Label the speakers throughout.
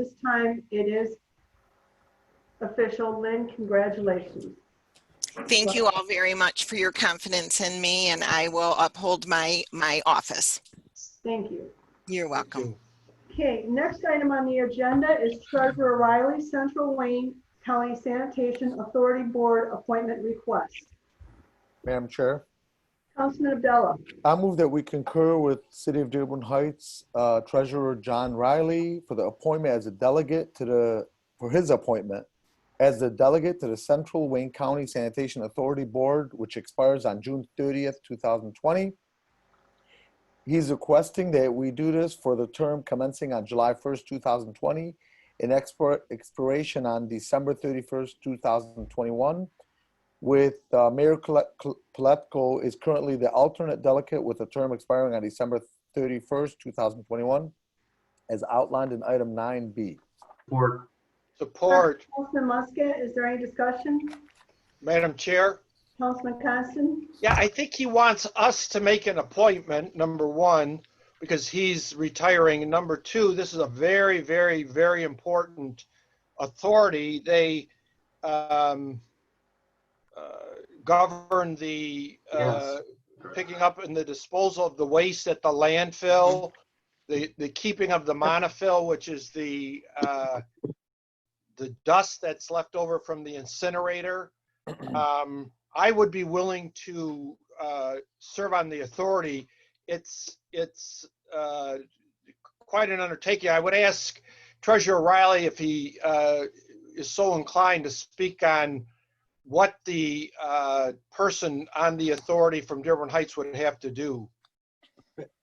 Speaker 1: this time it is official. Lynn, congratulations.
Speaker 2: Thank you all very much for your confidence in me and I will uphold my, my office.
Speaker 1: Thank you.
Speaker 2: You're welcome.
Speaker 1: Okay, next item on the agenda is Treasurer Riley, Central Wayne County Sanitation Authority Board Appointment Request.
Speaker 3: Madam Chair,
Speaker 1: Councilman Abdullah,
Speaker 3: I move that we concur with City of Dearborn Heights uh, Treasurer John Riley for the appointment as a delegate to the, for his appointment as the delegate to the Central Wayne County Sanitation Authority Board, which expires on June 30th, 2020. He's requesting that we do this for the term commencing on July 1st, 2020, and expir- expiration on December 31st, 2021 with uh, Mayor Kle- Kle- Pletko is currently the alternate delegate with a term expiring on December 31st, 2021, as outlined in item 9B.
Speaker 4: Support.
Speaker 5: Support,
Speaker 1: Councilman Muscat, is there any discussion?
Speaker 5: Madam Chair.
Speaker 1: Councilman Coniston,
Speaker 5: Yeah, I think he wants us to make an appointment, number one, because he's retiring. And number two, this is a very, very, very important authority. They um, uh, govern the uh, picking up and the disposal of the waste at the landfill, the, the keeping of the monofill, which is the, uh, the dust that's left over from the incinerator. Um, I would be willing to, uh, serve on the authority. It's, it's, uh, quite an undertaking. I would ask Treasurer Riley if he, uh, is so inclined to speak on, what the uh, person on the authority from Dearborn Heights would have to do.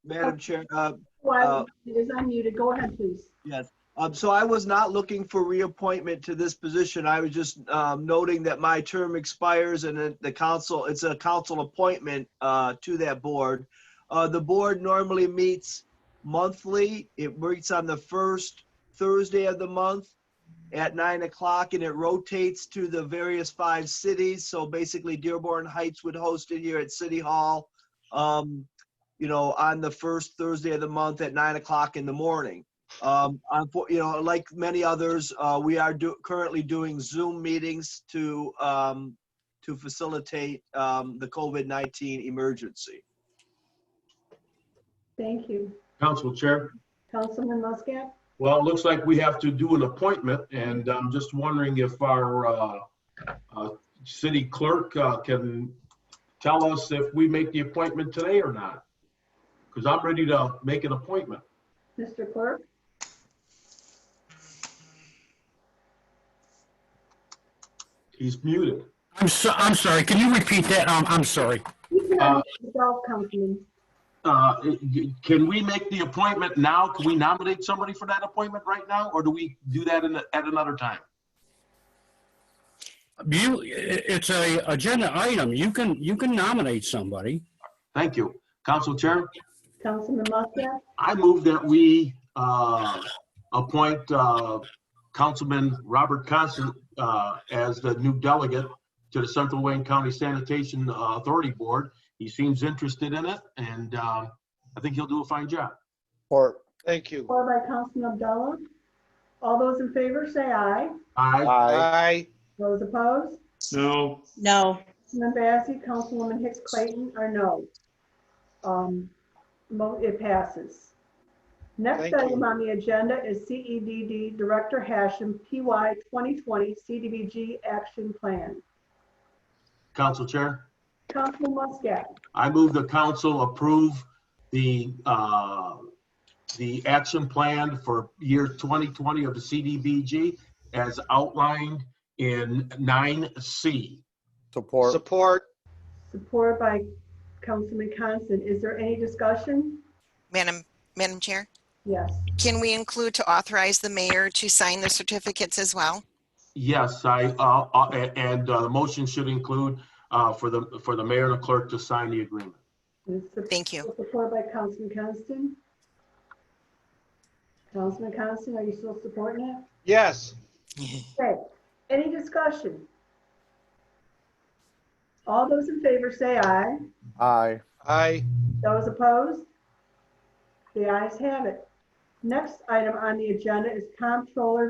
Speaker 6: Madam Chair, uh,
Speaker 1: why
Speaker 6: Uh,
Speaker 1: it is unmuted, go ahead, please.
Speaker 6: yes. Um, So I was not looking for reappointment to this position. I was just um, noting that my term expires and that the council, it's a council appointment uh, to that board. Uh, The board normally meets monthly. It meets on the first Thursday of the month at nine o'clock and it rotates to the various five cities. So basically Dearborn Heights would host it here at City Hall. um, You know, on the first Thursday of the month at nine o'clock in the morning. Um, unfor- you know, like many others, uh, we are do, currently doing Zoom meetings to, um, to facilitate, um, the COVID-19 emergency.
Speaker 1: Thank you.
Speaker 4: Council Chair,
Speaker 1: Councilman Muscat,
Speaker 4: well, it looks like we have to do an appointment, and I'm just wondering if our uh, uh, city clerk uh, can tell us if we make the appointment today or not. Because I'm ready to make an appointment.
Speaker 1: Mr. Clerk,
Speaker 4: He's muted.
Speaker 7: I'm so, I'm sorry, can you repeat that? Um, I'm sorry.
Speaker 1: you can
Speaker 4: Uh,
Speaker 1: unmute yourself, Councilman.
Speaker 4: Uh, Can we make the appointment now? Can we nominate somebody for that appointment right now, or do we do that in- at another time?
Speaker 7: You, i- it's a agenda item. You can, you can nominate somebody.
Speaker 4: Thank you. Council Chair?
Speaker 1: Councilman Muscat,
Speaker 4: I move that we uh, appoint uh, Councilman Robert Constant uh, as the new delegate to the Central Wayne County Sanitation uh, Authority Board. He seems interested in it, and uh, I think he'll do a fine job.
Speaker 3: Or
Speaker 5: Thank you.
Speaker 1: or by Councilman Abdullah. All those in favor, say aye.
Speaker 4: I,
Speaker 3: aye,
Speaker 5: Aye.
Speaker 1: Those opposed?
Speaker 8: No,
Speaker 9: No,
Speaker 1: Councilman Bazey, Councilwoman Hicks Clayton are no. Um, mo- It passes. Next
Speaker 5: Thank
Speaker 1: item
Speaker 5: you.
Speaker 1: on the agenda is CEDD Director Hashem, PY 2020 CDBG Action Plan.
Speaker 4: Council Chair,
Speaker 1: Councilman Muscat,
Speaker 4: I move the council approve the, uh, the action plan for year 2020 of the CDBG as outlined in 9C.
Speaker 3: support,
Speaker 5: Support.
Speaker 1: supported by Councilman Constant. Is there any discussion?
Speaker 2: Madam, Madam Chair,
Speaker 1: Yes.
Speaker 2: can we include to authorize the mayor to sign the certificates as well?
Speaker 4: Yes, I, uh, uh, a- and uh, the motion should include uh, for the, for the mayor and the clerk to sign the agreement.
Speaker 1: It's sup-
Speaker 2: Thank you.
Speaker 1: Supported by Councilman Constant. Councilman Constant, are you still supporting it?
Speaker 5: Yes.
Speaker 1: Okay, any discussion? All those in favor say aye.
Speaker 3: aye.
Speaker 5: Aye.
Speaker 1: Those opposed? The ayes have it. Next item on the agenda is Comptroller